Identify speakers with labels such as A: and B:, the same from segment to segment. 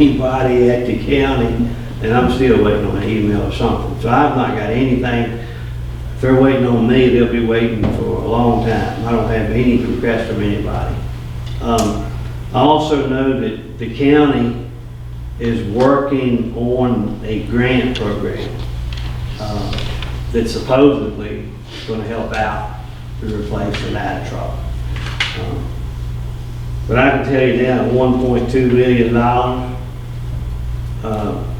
A: anybody at the county, and I'm still waiting on an email or something. So I've not got anything. If they're waiting on me, they'll be waiting for a long time. I don't have any request from anybody. Um, I also know that the county is working on a grant program uh, that supposedly is going to help out to replace the ladder truck. Um, but I can tell you now, one point two million dollars, uh,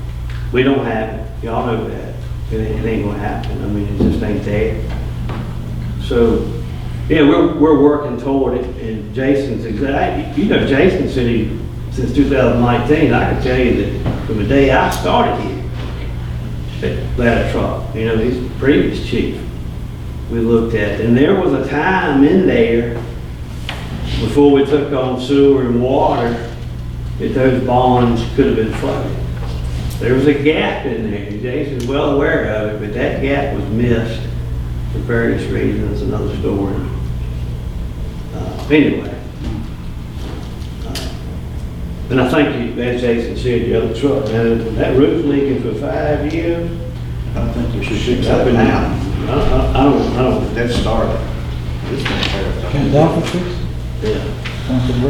A: we don't have it. Y'all know that. It ain't, it ain't gonna happen. I mean, it just ain't there. So, yeah, we're, we're working toward it and Jason's exactly, you know, Jason said he, since two thousand nineteen, I can tell you that from the day I started here, that ladder truck, you know, he's the previous chief, we looked at. And there was a time in there before we took on sewer and water, that those bonds could have been flooded. There was a gap in there, Jason's well aware of it, but that gap was missed for various reasons, another story. Uh, Anyway. Uh, And I think, you- as Jason said, the other truck, that, that roof leaking for five years.
B: I think we should fix that now.
A: I, I- I don't, I don't,
B: That started. This one started.
C: Can Delphi fix?
A: yeah.
C: Something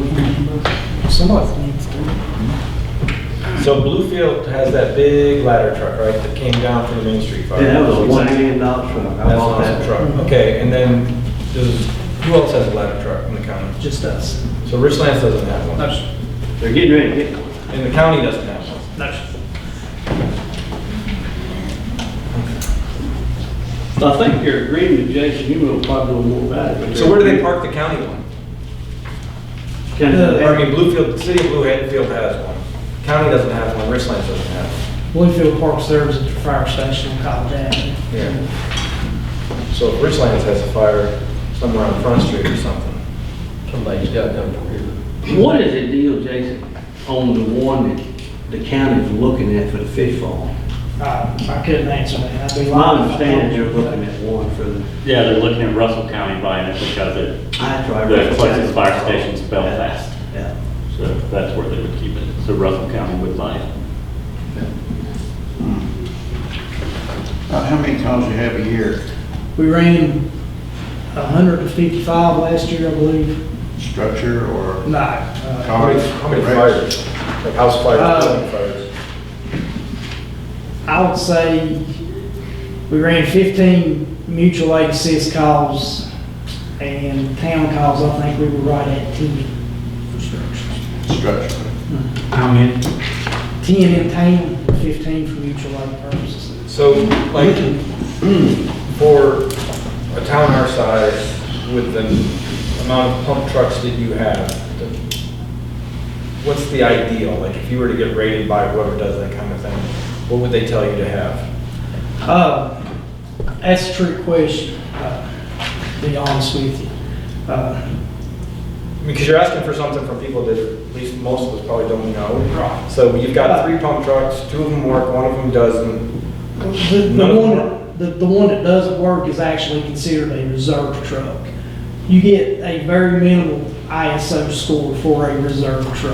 C: working?
D: Somebody needs to.
E: So Bluefield has that big ladder truck, right, that came down from the Main Street fire?
A: Yeah, that was a one million dollar truck. I
E: That's an
A: bought
E: awesome
A: that
E: truck. Okay, and then, does, who else has a ladder truck in the county?
D: Just us.
E: So Richlands doesn't have one,
A: They're getting ready to get one.
E: and the county doesn't have one.
A: I think you're agreeing with Jason, you will probably know more about it.
E: So where do they park the county one?
A: Kind
E: Or, I mean,
A: of,
E: Bluefield, the city of Blue Hatfield has one, county doesn't have one, Richlands doesn't have one.
D: Bluefield Park serves at the fire station on College Avenue.
E: Yeah. So if Richlands has a fire somewhere on Front Street or something. Somebody's gotta come from here.
A: what is the deal, Jason, on the one that the county's looking at for the fish farm?
D: I Uh, I couldn't answer that. I'd be
A: My
D: lying. if I told
A: understanding,
D: you.
A: you're looking at one for the,
F: Yeah, they're looking at Russell County buying it because it,
A: I tried.
F: the closest fire station's Belfast,
A: Yeah.
F: so that's where they would keep it. So Russell County would buy it.
B: About how many times you have a year
D: We ran 155 last year, I believe.
B: structure or?
D: No. uh,
E: How many,
B: cars,
E: how many
B: wrecks?
E: fires? Like house fires,
D: Uh,
E: building fires?
D: I would say we ran 15 mutual aid assist calls and town calls, I think we were right at 10.
B: Structure.
A: How many?
D: 10 in town, 15 for mutual aid purposes.
E: So, like, for a town our size, with the amount of pump trucks that you have, the- what's the ideal? Like, if you were to get rated by whoever does that kind of thing, what would they tell you to have?
D: Uh, That's a trick question, uh, to be honest with you. Uh,
E: Because you're asking for something from people that at least most of us probably don't know.
D: Right.
E: So you've got three pump trucks, two of them work, one of them doesn't.
D: The the
E: None of them
D: one,
E: work?
D: the the one that doesn't work is actually considered a reserve truck. You get a very minimal ISO score for a reserve truck.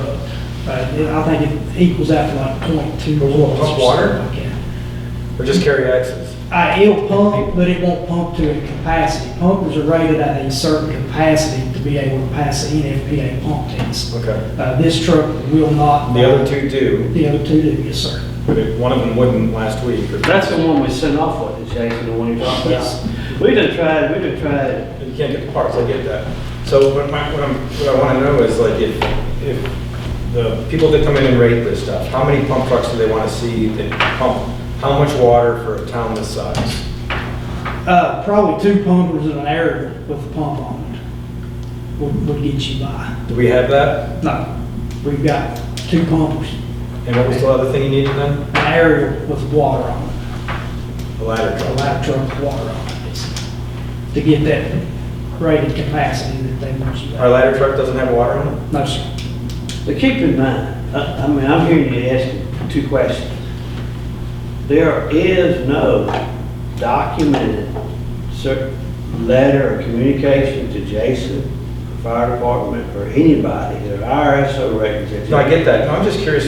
D: Uh, it- I think it equals out to like .2
E: But will it
D: watts or
E: pump water?
D: something like that.
E: Or just carry axes.
D: Uh, It'll pump, but it won't pump to a capacity. Pumpers are rated at a certain capacity to be able to pass the NFPA pump test.
E: Okay.
D: Uh, This truck will not.
E: The other two do,
D: The other two do, yes, sir.
E: but if one of them wouldn't last week. or-
A: That's the one we sent off with, Jason, the one you're talking
D: Yes.
A: about. We done tried, we done tried
E: You can't get the parts, I get that. So what my, what I'm, what I wanna know is like if, if the people that come in and rate this stuff, how many pump trucks do they wanna see that pump? How much water for a town this size?
D: Uh, probably two pumpers in an area with a pump on it would, would get you by.
E: Do we have that?
D: No, we've got two pumpers,
E: And what was the other thing you needed then?
D: an area with water on it,
E: A ladder
D: a
E: truck.
D: light truck with water on it, it's- to get that rated capacity that they want you
E: Our
D: to.
E: ladder truck doesn't have water in it?
D: No, sir.
A: But keep in mind, I, I mean, I'm hearing you ask two questions. There is no documented cer letter or communication to Jason, fire department, or anybody, their IRS records. that-
E: No, I get that. No, I'm just curious